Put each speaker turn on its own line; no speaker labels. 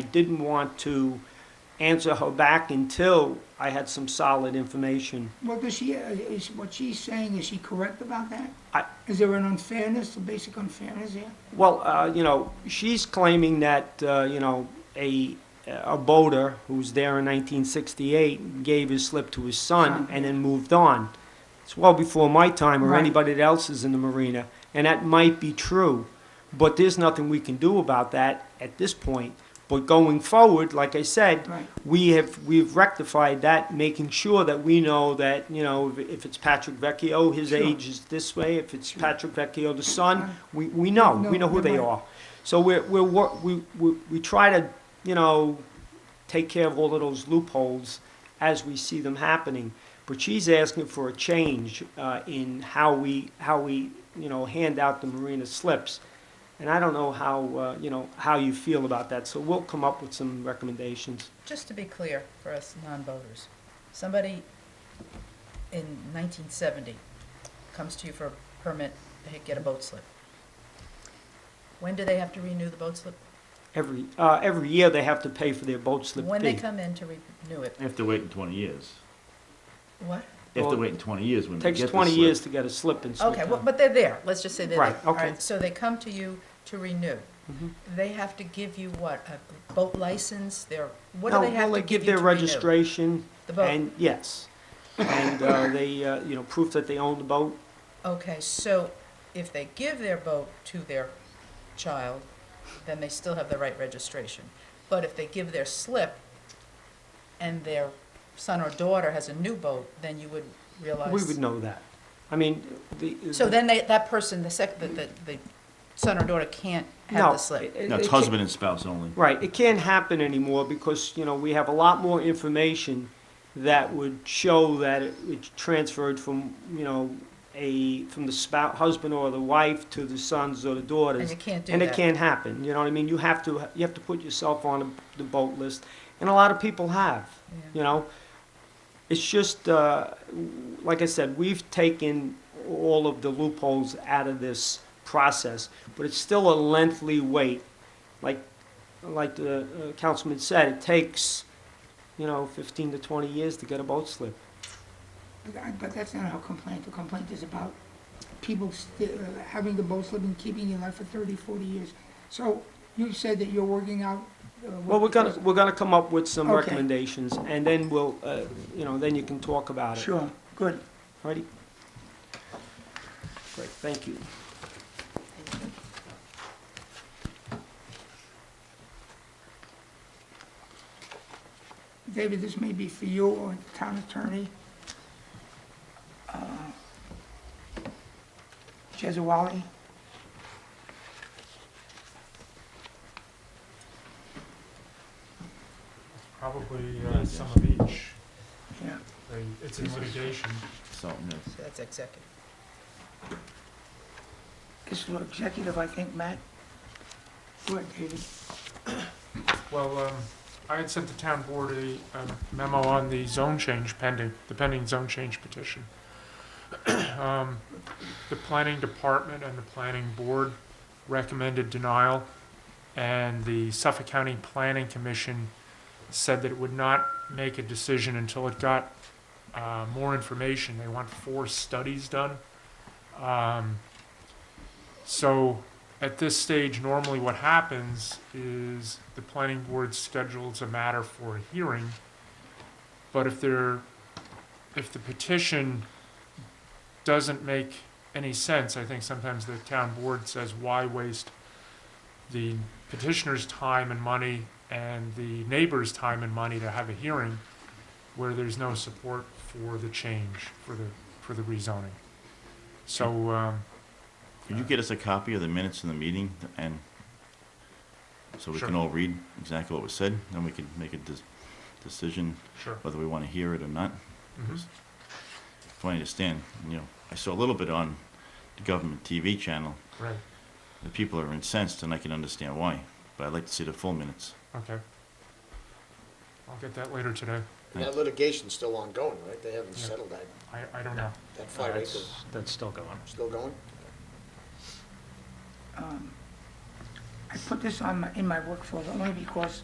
I didn't want to answer her back until I had some solid information.
Well, does she, uh, is, what she's saying, is she correct about that?
I-
Is there an unfairness, a basic unfairness here?
Well, uh, you know, she's claiming that, uh, you know, a, a boater who was there in 1968 gave his slip to his son
Son.
and then moved on. It's well before my time or
Right.
anybody else's in the marina, and that might be true, but there's nothing we can do about that at this point. But going forward, like I said,
Right.
we have, we've rectified that, making sure that we know that, you know, if- if it's Patrick Vecchio, his
Sure.
age is this way, if it's Patrick Vecchio, the son,
Right.
we, we know,
No,
we know who
you're
they
right.
are. So we're, we're, wor- we, we, we try to, you know, take care of all of those loopholes as we see them happening. But she's asking for a change uh, in how we, how we, you know, hand out the marina slips. And I don't know how, uh, you know, how you feel about that, so we'll come up with some recommendations.
Just to be clear for us non-voters, somebody in 1970 comes to you for a permit, they get a boat slip. When do they have to renew the boat slip?
Every, uh, every year they have to pay for their boat slip
When they
fee.
come in to renew it?
They have to wait in 20 years.
What?
They have
Well,
to wait in 20 years when they
Takes
get
twenty
the slip.
years to get a slip and slip
Okay, well, but they're there, let's just say they're there.
Right,
All
okay.
So they come to you to renew.
Mhm.
They have to give you what, a boat license, their, what
No,
do they have
well,
to give you
their
to renew?
registration
The boat,
and, yes. And uh, they, uh, you know, proof that they own the boat.
okay, so if they give their boat to their child, then they still have the right registration. But if they give their slip and their son or daughter has a new boat, then you would realize.
We would know that. I mean, the.
Oh,
uh,
So then they, that person, the sec, the, the, the son or daughter can't have
No,
the slip.
it- it-
No, it's
it can't-
husband and spouse only.
Right, it can't happen anymore because, you know, we have a lot more information that would show that it it transferred from, you know, a, from the spouse, husband or the wife to the sons or the daughters.
And you can't do
And
that.
it can't happen, you know what I mean? You have to, you have to put yourself on the boat list, and a lot of people have,
Yeah.
you know? It's just, uh, like I said, we've taken all of the loopholes out of this process, but it's still a lengthy wait. Like, like the uh, councilman said, it takes, you know, fifteen to twenty years to get a boat slip.
But I- But that's not our complaint, the complaint is about people sti- uh, having the boat slip and keeping it alive for 30, 40 years. So you said that you're working out. uh, what-
Well, we're gonna, we're gonna come up with some
Okay.
recommendations, and then we'll, uh, you know, then you can talk about it.
Sure, good.
Alrighty? Great, thank you.
David, this may be for you or the town attorney. Uh, Jezawali,
Probably uh, some of each.
yeah.
They- It's in litigation.
Something else.
So that's executive.
This is for executive, I think, Matt. Go ahead, David.
Well, um, I had sent the town board a a memo on the zone change pending, the pending zone change petition. Um, The planning department and the planning board recommended denial, and the Suffolk County Planning Commission said that it would not make a decision until it got uh, more information. They want four studies done. Um, So at this stage, normally what happens is the planning board schedules a matter for a hearing. But if there, if the petition doesn't make any sense, I think sometimes the town board says, why waste the petitioner's time and money and the neighbor's time and money to have a hearing where there's no support for the change, for the, for the rezoning. So, um,
Could you get us a copy of the minutes of the meeting and so we
Sure.
can all read exactly what was said? Then we could make a dis- decision
sure.
whether we want to hear it or not. Mm-hmm.
Mhm.
If I understand, you know, I saw a little bit on the government TV channel.
Right,
The people are incensed, and I can understand why. But I'd like to see the full minutes.
okay. I'll get that later today.
And That litigation's still ongoing, right? They haven't
Yeah.
settled that,
I, I don't know.
that five acre,
that's still going.
still going?
um, I put this on my, in my workflow only because